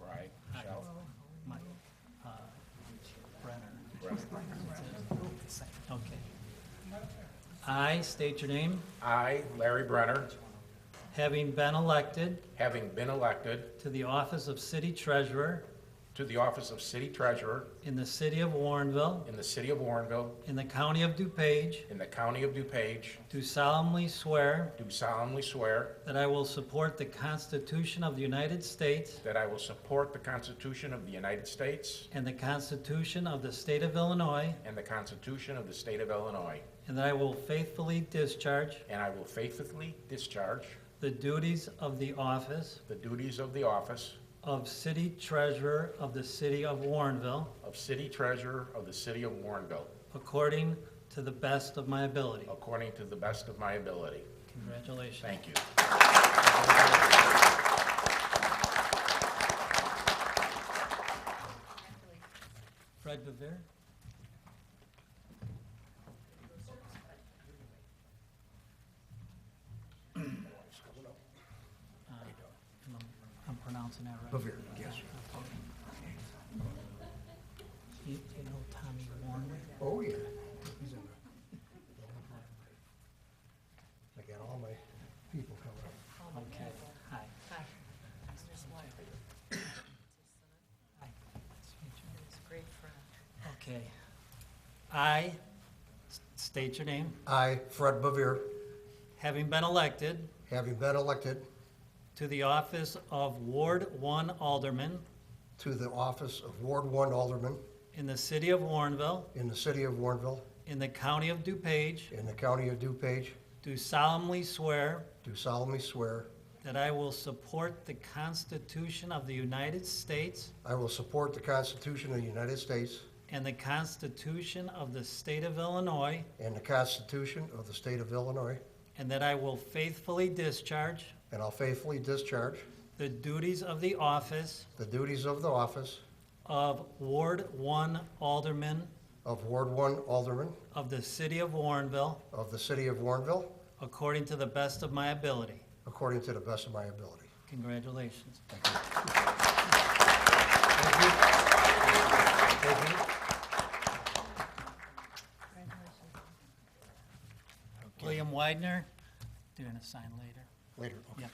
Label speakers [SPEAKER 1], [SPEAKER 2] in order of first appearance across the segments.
[SPEAKER 1] Right.
[SPEAKER 2] Michelle?
[SPEAKER 3] My, uh, Brenner. Okay. I state your name,
[SPEAKER 1] I, Larry Brenner,
[SPEAKER 3] having been elected
[SPEAKER 1] having been elected
[SPEAKER 3] to the office of city treasurer
[SPEAKER 1] to the office of city treasurer
[SPEAKER 3] in the city of Warrenville,
[SPEAKER 1] in the city of Warrenville,
[SPEAKER 3] in the county of DuPage,
[SPEAKER 1] in the county of DuPage,
[SPEAKER 3] do solemnly swear
[SPEAKER 1] do solemnly swear
[SPEAKER 3] that I will support the Constitution of the United States
[SPEAKER 1] that I will support the Constitution of the United States
[SPEAKER 3] and the Constitution of the state of Illinois,
[SPEAKER 1] and the Constitution of the state of Illinois,
[SPEAKER 3] and that I will faithfully discharge
[SPEAKER 1] and I will faithfully discharge
[SPEAKER 3] the duties of the office
[SPEAKER 1] the duties of the office
[SPEAKER 3] of city treasurer of the city of Warrenville
[SPEAKER 1] of city treasurer of the city of Warrenville
[SPEAKER 3] according to the best of my ability.
[SPEAKER 1] according to the best of my ability.
[SPEAKER 3] Congratulations.
[SPEAKER 1] Thank you.
[SPEAKER 3] Fred Bavir? Uh, I'm pronouncing that right. Bavir, yes. You you know Tommy Warner?
[SPEAKER 4] Oh, yeah. He's in the- I got all my people coming up.
[SPEAKER 3] Okay, hi.
[SPEAKER 5] Hi. There's one.
[SPEAKER 3] Hi. Nice to meet you.
[SPEAKER 5] He's a great friend.
[SPEAKER 3] Okay. I s- state your name,
[SPEAKER 4] I, Fred Bavir,
[SPEAKER 3] having been elected
[SPEAKER 4] having been elected
[SPEAKER 3] to the office of Ward One Alderman
[SPEAKER 4] to the office of Ward One Alderman
[SPEAKER 3] in the city of Warrenville,
[SPEAKER 4] in the city of Warrenville,
[SPEAKER 3] in the county of DuPage,
[SPEAKER 4] in the county of DuPage,
[SPEAKER 3] do solemnly swear
[SPEAKER 4] do solemnly swear
[SPEAKER 3] that I will support the Constitution of the United States
[SPEAKER 4] I will support the Constitution of the United States
[SPEAKER 3] and the Constitution of the state of Illinois,
[SPEAKER 4] and the Constitution of the state of Illinois,
[SPEAKER 3] and that I will faithfully discharge
[SPEAKER 4] and I'll faithfully discharge
[SPEAKER 3] the duties of the office
[SPEAKER 4] the duties of the office
[SPEAKER 3] of Ward One Alderman
[SPEAKER 4] of Ward One Alderman
[SPEAKER 3] of the city of Warrenville
[SPEAKER 4] of the city of Warrenville
[SPEAKER 3] according to the best of my ability.
[SPEAKER 4] according to the best of my ability.
[SPEAKER 3] Congratulations.
[SPEAKER 4] Thank you.
[SPEAKER 3] William Widener, they're going to sign later.
[SPEAKER 4] Later, okay.
[SPEAKER 3] Yep.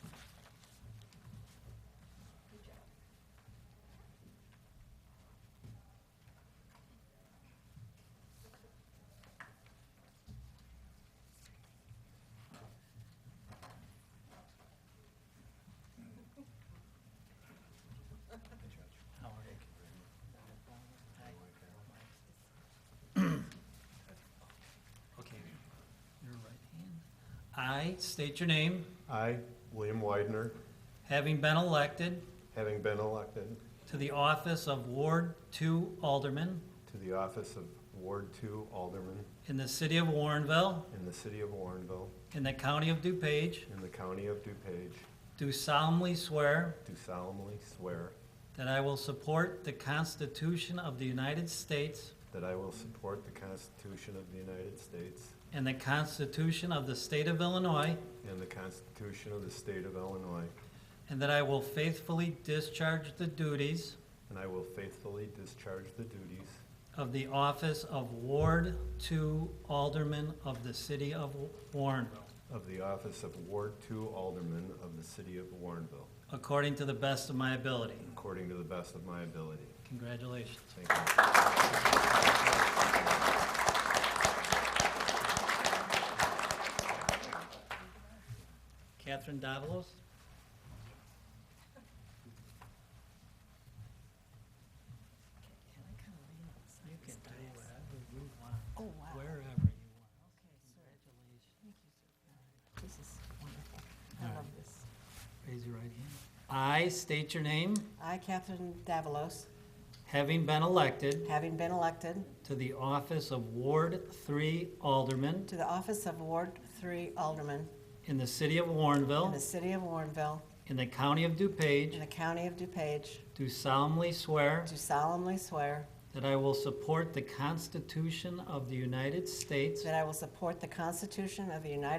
[SPEAKER 3] How are you? Okay, your right hand. I state your name,
[SPEAKER 6] I, William Widener,
[SPEAKER 3] having been elected
[SPEAKER 6] having been elected
[SPEAKER 3] to the office of Ward Two Alderman
[SPEAKER 6] to the office of Ward Two Alderman
[SPEAKER 3] in the city of Warrenville,
[SPEAKER 6] in the city of Warrenville,
[SPEAKER 3] in the county of DuPage,
[SPEAKER 6] in the county of DuPage,
[SPEAKER 3] do solemnly swear
[SPEAKER 6] do solemnly swear
[SPEAKER 3] that I will support the Constitution of the United States
[SPEAKER 6] that I will support the Constitution of the United States
[SPEAKER 3] and the Constitution of the state of Illinois,
[SPEAKER 6] and the Constitution of the state of Illinois,
[SPEAKER 3] and that I will faithfully discharge the duties
[SPEAKER 6] and I will faithfully discharge the duties
[SPEAKER 3] of the office of Ward Two Alderman of the city of Warrenville,
[SPEAKER 6] of the office of Ward Two Alderman of the city of Warrenville,
[SPEAKER 3] according to the best of my ability.
[SPEAKER 6] according to the best of my ability.
[SPEAKER 3] Congratulations.
[SPEAKER 6] Thank you.
[SPEAKER 3] Catherine Davalos?
[SPEAKER 5] Can I kind of lean on the side
[SPEAKER 3] You
[SPEAKER 5] of
[SPEAKER 3] can
[SPEAKER 5] this
[SPEAKER 3] do
[SPEAKER 5] desk?
[SPEAKER 3] whatever you want,
[SPEAKER 5] Oh, wow. Okay,
[SPEAKER 3] wherever you want.
[SPEAKER 5] sorry. Thank you, sir. This is wonderful. I love this.
[SPEAKER 3] Raise your right hand. I state your name,
[SPEAKER 7] I, Catherine Davalos,
[SPEAKER 3] having been elected
[SPEAKER 7] having been elected
[SPEAKER 3] to the office of Ward Three Alderman
[SPEAKER 7] to the office of Ward Three Alderman
[SPEAKER 3] in the city of
[SPEAKER 7] in the
[SPEAKER 3] Warrenville,
[SPEAKER 7] city of Warrenville,
[SPEAKER 3] in the county of
[SPEAKER 7] in
[SPEAKER 3] DuPage,
[SPEAKER 7] the county of DuPage,
[SPEAKER 3] do solemnly swear
[SPEAKER 7] do solemnly swear
[SPEAKER 3] that I will support the Constitution of the United States
[SPEAKER 7] that I will support the Constitution of the United